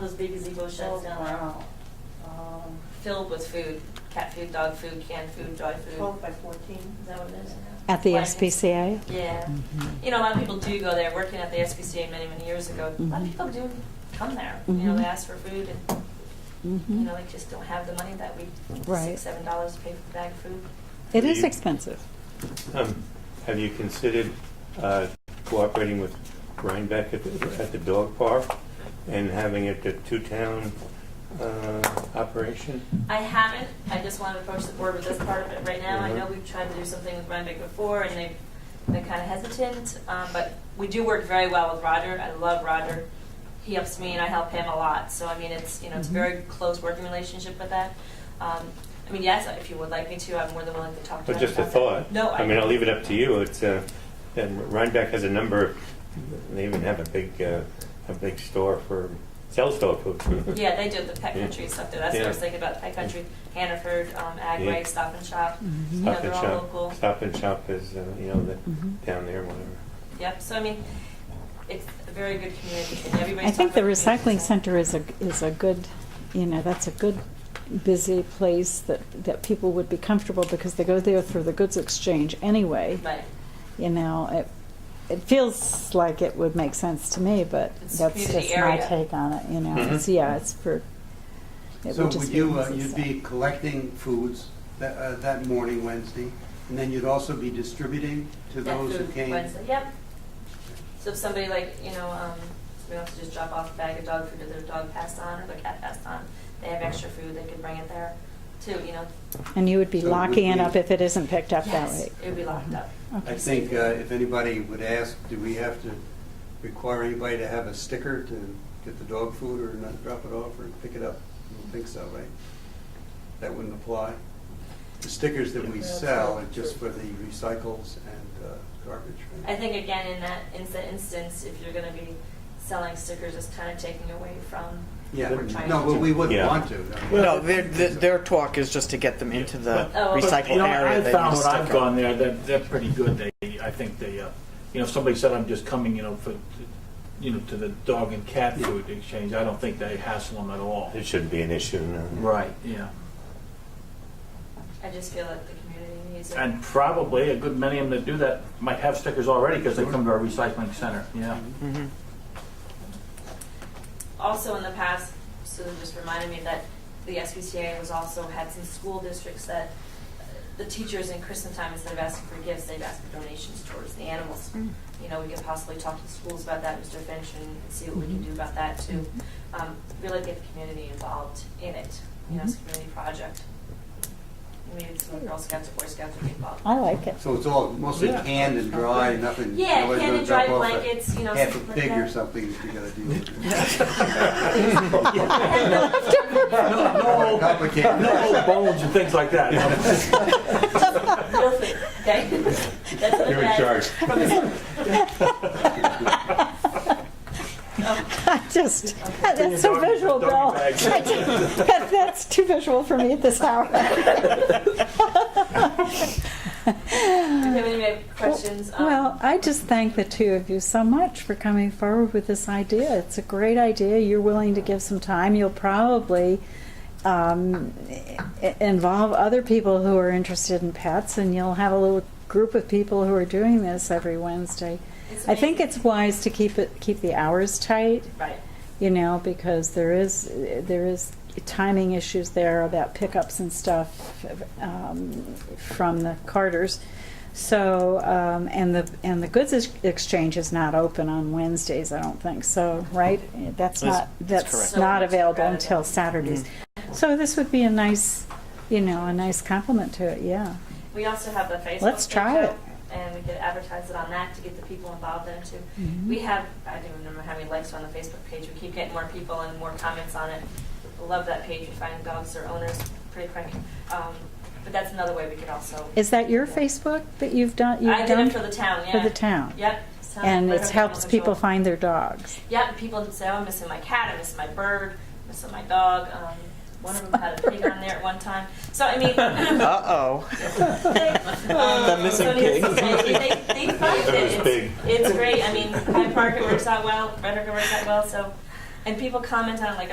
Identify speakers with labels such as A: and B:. A: Those big gazebo sheds down there,
B: Wow. Um,
A: filled with food, cat food, dog food, canned food, dry food.
B: Twelve by fourteen.
A: Is that what it is?
C: At the
A: Wagons.
C: SPCA?
A: Yeah. You know, a lot of people do go there, working at the SPCA many, many years ago. A lot of
C: Mhm.
A: people do come there. You know,
C: Mhm.
A: they ask for food and, you
C: Mhm.
A: know, they just don't have the money that week.
C: Right.
A: Six, seven dollars to pay for the bag of food.
C: It is expensive.
D: Um, Have you considered uh, cooperating with Rhinebeck at the, at the dog park and having it a two-town uh, operation?
A: I haven't. I just want to approach the board with this part of it right now. I
D: Mhm.
A: know we've tried to do something with Rhinebeck before, and they've been kind of hesitant. Um, but we do work very well with Roger. I love Roger. He helps me, and I help him a lot. So I mean, it's you know, it's a
D: Mm-hmm.
C: Mhm.
A: very close working relationship with that. Um, I mean, yes, if you would like me to, I'm more than willing to talk to.
D: But
A: him
D: just a
A: about that.
D: thought.
A: No, I,
D: I mean, I'll leave it up to you. It's, uh, and Rhinebeck has a number, they even have a big, uh, a big store for, sells dog food.
A: Yeah, they do the pet
D: Yeah.
A: country stuff there. That's what I was
D: Yeah.
A: thinking about. Pet country, Hannaford, um, Agway,
D: Yeah.
A: Stop and Shop. You
E: Mm-hmm.
A: know,
D: Stop
A: they're
D: and
A: all local.
D: shop, stop and shop is, uh, you know, the-
A: Mm-hmm.
C: Mhm.
D: down there, whatever.
A: Yep. So I mean, it's a very good community, and everybody's.
C: I think the
A: talking about community,
C: recycling
A: so-
C: center is a, is a good, you know, that's a good, busy place that, that people would be comfortable because they go there through the goods exchange anyway.
A: Right.
C: You know, it, it feels like it would make sense to me, but
A: It's
C: that's
A: community
C: just my
A: area.
C: take on it, you know. It's,
D: Mhm.
C: yeah, it's for, it
E: Mm-hmm. So
C: would just
E: would
C: be.
E: you, uh,
C: easy
E: you'd
C: stuff.
E: be collecting foods that, uh, that morning, Wednesday, and then you'd also be distributing to
A: That
E: those who
A: food
E: came?
A: Wednesday, Yep. So if somebody like, you know, um, we don't have to just drop off a bag of dog food that their dog passed on or their cat passed on. They have extra food, they could bring it there too, you know.
C: And you would be
E: So would
C: locking it
E: we-
C: up if it isn't picked up that
A: Yes,
C: way.
A: it would be locked up.
C: Okay.
E: I think uh, if anybody would ask, do we have to require anybody to have a sticker to get the dog food or not drop it off or pick it up? I don't think so, right? That wouldn't apply? The stickers that we sell are just for the recycles and uh, garbage,
A: I
E: right?
A: think again, in that, in that instance, if you're gonna be selling stickers, it's kind of taking away from,
E: Yeah,
A: we're trying
E: no,
A: to-
E: but we wouldn't
D: Yeah.
E: want to. I mean,
F: No, their, their their talk is just to get them into the
D: But-
A: Oh, okay.
F: recycle
G: uh, You know,
F: area.
G: I
F: that
G: found
F: you
G: when
F: stick
G: I've
F: them.
G: gone there, they're, they're pretty good. They, I think they, uh, you know, if somebody said, I'm just coming, you know, for, you know, to the dog and cat food exchange, I don't think they hassle them at all.
D: It shouldn't be an issue, no.
G: Right, yeah.
A: I just feel like the community needs it.
G: And probably a good many of them that do that might have stickers already because they come to our recycling center, yeah.
A: also in the past, Susan just reminded me that the SPCA was also had some school districts that uh, the teachers in Christmas time, instead of asking for gifts, they've asked for donations towards the animals. You know, we could possibly talk to the schools about that, Mr. Finch, and see what we can do about that too. Um, Really get the community involved in it, you know, it's a community project. Maybe some Girl Scouts or Boy Scouts would get involved.
C: I like it.
E: So it's all mostly
G: Yeah.
E: canned and dry, nothing.
A: Yeah,
E: nobody's
A: canned
E: gonna
A: and
E: drop
A: dry
E: off a
A: blankets, you know,
E: Half
A: something
E: a
A: like
E: pig or
A: that.
E: something that you gotta deal with.
G: No,
E: Complicated.
G: no old bones and things like that. you know.
A: Real food, okay? That's what it
D: You're in
A: is.
D: charge.
C: I just, that's so
G: Doggy-
C: visual,
G: doggy
C: Bill.
G: bags.
C: I just- that- That's too visual for me at this hour.
A: Do you have any other questions? Um,
C: Well, I just thank the two of you so much for coming forward with this idea. It's a great idea. You're willing to give some time. You'll probably um, i- involve other people who are interested in pets, and you'll have a little group of people who are doing this every Wednesday.
A: it's
C: I think
A: amazing.
C: it's wise to keep it keep the hours tight.
A: Right.
C: you know, because there is there is timing issues there about pickups and stuff um, from the Carters. So um, and the and the goods ex- exchange is not open on Wednesdays, I don't think. So right, that's,
F: That's-
C: not
F: that's
C: that's, not
F: correct. Mm-hmm.
A: So it's
C: available
A: Saturday.
C: until Saturdays. So this would be a nice, you know, a nice compliment to it. Yeah.
A: We also have the Facebook.
C: Let's try
A: page
C: it.
A: out, And we could advertise it on that to get the people involved in it too.
C: Mhm.
A: We have, I don't remember how many likes on the Facebook page. We keep getting more people and more comments on it. Love that page. We find dogs or owners pretty cranky. Um, But that's another way we could also.
C: Is that your Facebook that you've done? You've
A: I did
C: done
A: it for the town, yeah.
C: for the town.
A: Yep. So-
C: And
A: Right
C: it
A: up
C: helps
A: on the
C: people
A: shoulder.
C: find their dogs.
A: Yeah, and people say, oh, I'm missing my cat, I'm missing my bird, I'm missing my dog. Um, One of them had a pig on there at one time. So I mean.
F: Uh oh.
A: The
F: missing pig.
A: They, they find
D: That was
A: it.
D: big.
A: It's, it's great. I mean, Hyde Park, it works out well. Red Hook, it works out well. So, and people comment on it like